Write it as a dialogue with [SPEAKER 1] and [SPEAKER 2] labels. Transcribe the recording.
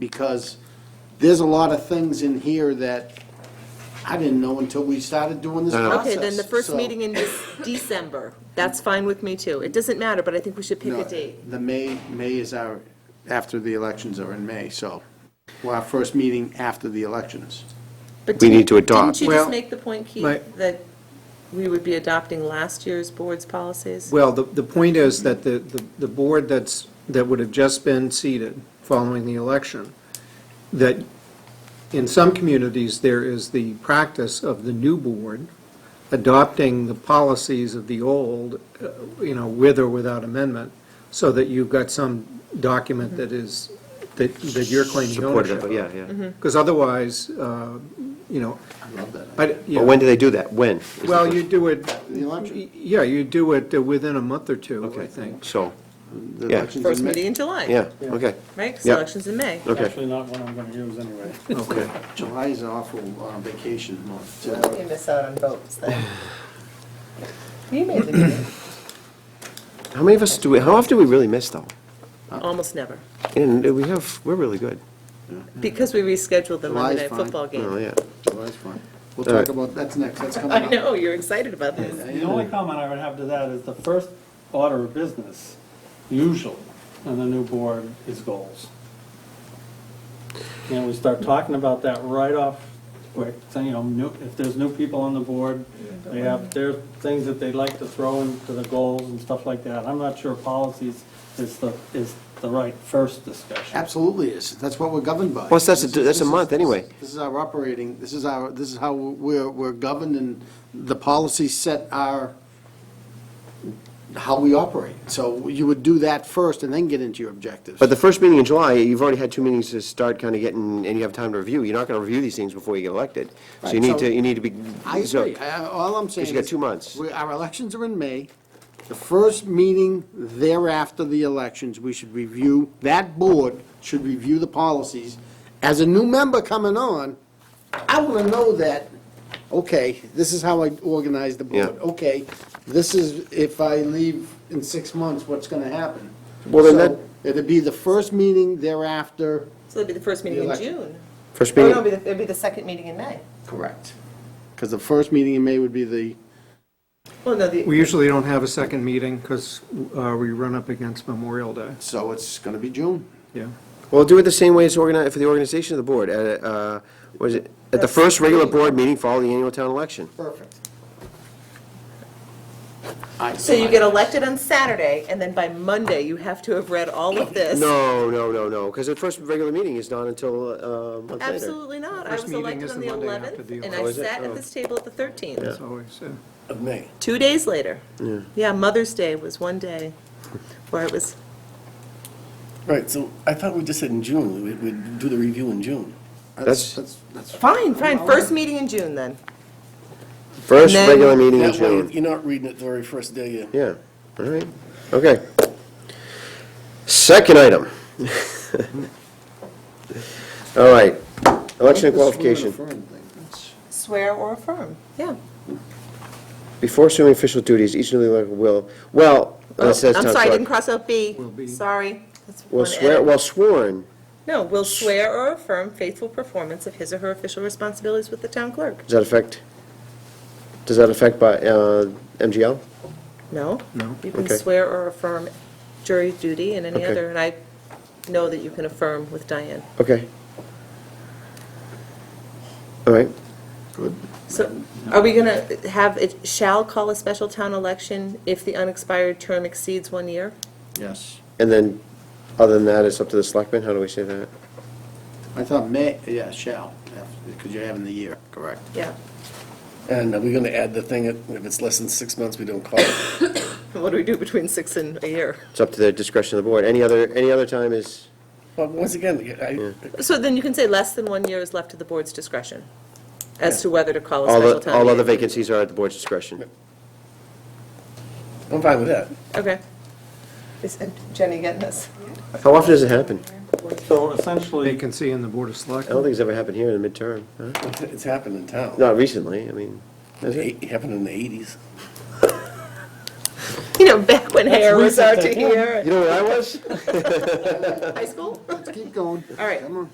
[SPEAKER 1] because there's a lot of things in here that I didn't know until we started doing this process.
[SPEAKER 2] Okay, then the first
[SPEAKER 1] So-
[SPEAKER 2] meeting in Dec- December, that's fine with me too. It doesn't matter, but I think we should pick
[SPEAKER 1] No,
[SPEAKER 2] a date.
[SPEAKER 1] The May, May is our, after the elections are in May, so, well, our first meeting after the elections.
[SPEAKER 2] But
[SPEAKER 3] We
[SPEAKER 2] didn't-
[SPEAKER 3] need to adopt.
[SPEAKER 2] Didn't you
[SPEAKER 4] Well,
[SPEAKER 2] just make the point,
[SPEAKER 4] my-
[SPEAKER 2] Keith, that we would be adopting last year's board's policies?
[SPEAKER 4] Well, the, the point is that the, the- the board that's, that would have just been seated following the election, that in some communities, there is the practice of the new board adopting the policies of the old, uh, you know, with or without amendment, so that you've got some document that is, that, that you're claiming
[SPEAKER 3] Supportive,
[SPEAKER 4] ownership
[SPEAKER 3] of-
[SPEAKER 4] of.
[SPEAKER 3] yeah, yeah.
[SPEAKER 4] Because otherwise, uh, you know,
[SPEAKER 1] I love that.
[SPEAKER 4] I, you
[SPEAKER 3] But
[SPEAKER 4] know.
[SPEAKER 3] when do they do that? When? is the
[SPEAKER 4] Well, you
[SPEAKER 3] question.
[SPEAKER 4] do it,
[SPEAKER 1] The election.
[SPEAKER 4] yeah, you do it uh, within a month or two, I
[SPEAKER 3] Okay.
[SPEAKER 4] think.
[SPEAKER 3] So,
[SPEAKER 1] The
[SPEAKER 3] Yeah.
[SPEAKER 1] elections in
[SPEAKER 2] First
[SPEAKER 1] May.
[SPEAKER 2] meeting in July.
[SPEAKER 3] yeah, okay,
[SPEAKER 2] Right, 'Cause
[SPEAKER 3] Yeah.
[SPEAKER 2] election's in May.
[SPEAKER 3] okay,
[SPEAKER 5] Actually, not one I'm gonna use anyway.
[SPEAKER 3] okay.
[SPEAKER 1] July is an awful uh, vacation month. uh, too.
[SPEAKER 6] You miss out on votes then. You made the meeting.
[SPEAKER 3] How many of us do we, how often do we really miss, though?
[SPEAKER 2] Almost never,
[SPEAKER 3] And we have, we're really good.
[SPEAKER 2] because we rescheduled the
[SPEAKER 1] July's
[SPEAKER 2] Monday Night
[SPEAKER 1] fine.
[SPEAKER 2] Football
[SPEAKER 3] Oh,
[SPEAKER 2] game.
[SPEAKER 3] yeah.
[SPEAKER 1] July's fine. We'll
[SPEAKER 3] All
[SPEAKER 1] talk
[SPEAKER 3] right.
[SPEAKER 1] about, that's next, that's coming
[SPEAKER 2] I
[SPEAKER 1] up.
[SPEAKER 2] know, you're excited about this.
[SPEAKER 5] The only comment I would have to that is the first order of business, usually, on the new board is goals. You know, we start talking about that right off quick, saying, you know, new, if there's new people on the board, they have their things that they'd like to throw into the goals and stuff like that. I'm not sure policies is the, is the right first discussion.
[SPEAKER 1] Absolutely is. That's what we're governed by.
[SPEAKER 3] Plus, that's a-
[SPEAKER 1] This is-
[SPEAKER 3] that's a
[SPEAKER 1] this is-
[SPEAKER 3] month anyway.
[SPEAKER 1] This is our operating, this is our, this is how we're, we're governed and the policies set our, how we operate. So you would do that first and then get into your objectives.
[SPEAKER 3] But the first meeting in July, you've already had two meetings to start kind of getting, and you have time to review. You're not going to review these things before you get elected. So you
[SPEAKER 1] Right,
[SPEAKER 3] need
[SPEAKER 1] so-
[SPEAKER 3] to, you need to be.
[SPEAKER 1] I
[SPEAKER 3] so-
[SPEAKER 1] agree. I- I- All I'm saying is.
[SPEAKER 3] you got two months.
[SPEAKER 1] we- Our elections are in May. The first meeting thereafter the elections, we should review, that board should review the policies. As a new member coming on, I want to know that, okay, this is how I organize the board.
[SPEAKER 3] Yeah.
[SPEAKER 1] Okay, this is, if I leave in six months, what's going to happen?
[SPEAKER 3] Well, then
[SPEAKER 1] So
[SPEAKER 3] that-
[SPEAKER 1] It'd be the first meeting thereafter.
[SPEAKER 2] So it'll be the first meeting in June.
[SPEAKER 3] First
[SPEAKER 6] Oh, no, it'd
[SPEAKER 3] meeting,
[SPEAKER 6] be the- it'd be the second meeting in May.
[SPEAKER 1] Correct. Because the first meeting in May would be the
[SPEAKER 2] Well, no, the,
[SPEAKER 4] We usually don't have a second meeting because we run up against Memorial Day,
[SPEAKER 1] So it's going to be June.
[SPEAKER 4] yeah.
[SPEAKER 3] well, do it the same way as organized, for the organization of the board. At, uh, was it, at the first regular board meeting following the annual town election.
[SPEAKER 1] Perfect.
[SPEAKER 2] So you get elected on Saturday, and then by Monday, you have to have read all of this?
[SPEAKER 3] No, no, no, no, because the first regular meeting is not until uh, a month later.
[SPEAKER 2] Absolutely not. I
[SPEAKER 4] First
[SPEAKER 2] was
[SPEAKER 4] meeting
[SPEAKER 2] elected
[SPEAKER 4] is
[SPEAKER 2] on
[SPEAKER 4] the
[SPEAKER 2] the
[SPEAKER 4] Monday after the
[SPEAKER 2] 11th, and
[SPEAKER 3] Oh,
[SPEAKER 2] I
[SPEAKER 3] is it?
[SPEAKER 2] sat
[SPEAKER 3] Oh.
[SPEAKER 2] at this table at the 13th,
[SPEAKER 4] It's always, uh, yeah.
[SPEAKER 1] Of May.
[SPEAKER 2] two days later. Yeah, Mother's Day was one day where it was,
[SPEAKER 7] Right, so I thought we just said in June, we- we'd do the review in June.
[SPEAKER 3] That's-
[SPEAKER 1] that's.
[SPEAKER 2] fine, fine, first meeting in June then.
[SPEAKER 3] First
[SPEAKER 2] And then-
[SPEAKER 3] regular meeting in
[SPEAKER 7] That way,
[SPEAKER 3] June.
[SPEAKER 7] you're not reading it the very first day. you-
[SPEAKER 3] Yeah, all right, okay. Second item. All right, election qualification.
[SPEAKER 6] Swear or affirm?
[SPEAKER 2] Yeah.
[SPEAKER 3] Before assuming official duties, each newly elected will, well,
[SPEAKER 2] Oh,
[SPEAKER 3] it says
[SPEAKER 2] I'm
[SPEAKER 3] town
[SPEAKER 2] sorry, I
[SPEAKER 3] clerk,
[SPEAKER 2] didn't cross out B.
[SPEAKER 4] Will be.
[SPEAKER 2] Sorry. That's
[SPEAKER 3] Will
[SPEAKER 2] one
[SPEAKER 3] swear,
[SPEAKER 2] edit.
[SPEAKER 3] well sworn,
[SPEAKER 2] No, will swear or affirm faithful performance of his or her official responsibilities with the town clerk.
[SPEAKER 3] does that affect, does that affect by, uh, MGL?
[SPEAKER 2] No?
[SPEAKER 4] No.
[SPEAKER 2] You can
[SPEAKER 3] Okay.
[SPEAKER 2] swear or affirm jury duty and any
[SPEAKER 3] Okay.
[SPEAKER 2] other, and I know that you can affirm with Diane.
[SPEAKER 3] Okay. All right,
[SPEAKER 2] So are we going to have, it shall call a special town election if the unexpired term exceeds one year?
[SPEAKER 1] Yes.
[SPEAKER 3] and then, other than that, it's up to the selectmen, how do we say that?
[SPEAKER 1] I thought May, yeah, shall, because you're having the year, correct.
[SPEAKER 2] Yeah.
[SPEAKER 7] And are we going to add the thing, that if it's less than six months, we don't call it?
[SPEAKER 2] What do we do between six and a year?
[SPEAKER 3] It's up to the discretion of the board. Any other, any other time is,
[SPEAKER 7] But once again, I,
[SPEAKER 2] So then you can say less than one year is left to the board's discretion as to whether to call a
[SPEAKER 3] all,
[SPEAKER 2] special
[SPEAKER 3] the-
[SPEAKER 2] town
[SPEAKER 3] all other
[SPEAKER 2] meeting.
[SPEAKER 3] vacancies are at the board's discretion.
[SPEAKER 7] I'm fine with that.
[SPEAKER 2] Okay.
[SPEAKER 6] Is Jenny getting this?
[SPEAKER 3] How often does it happen?
[SPEAKER 5] So essentially,
[SPEAKER 4] Vacancy in the Board of
[SPEAKER 3] I don't
[SPEAKER 4] Selectmen.
[SPEAKER 3] think it's ever happened here in the midterm. huh?
[SPEAKER 7] It's- It's happened in town.
[SPEAKER 3] Not recently, I mean, has it?
[SPEAKER 7] It happened in the 80s.
[SPEAKER 2] You know, back when hair was out to
[SPEAKER 7] recent, I think.
[SPEAKER 2] here,
[SPEAKER 3] You know where I was?
[SPEAKER 2] high school?
[SPEAKER 1] Keep going.
[SPEAKER 2] All right.
[SPEAKER 1] Come on.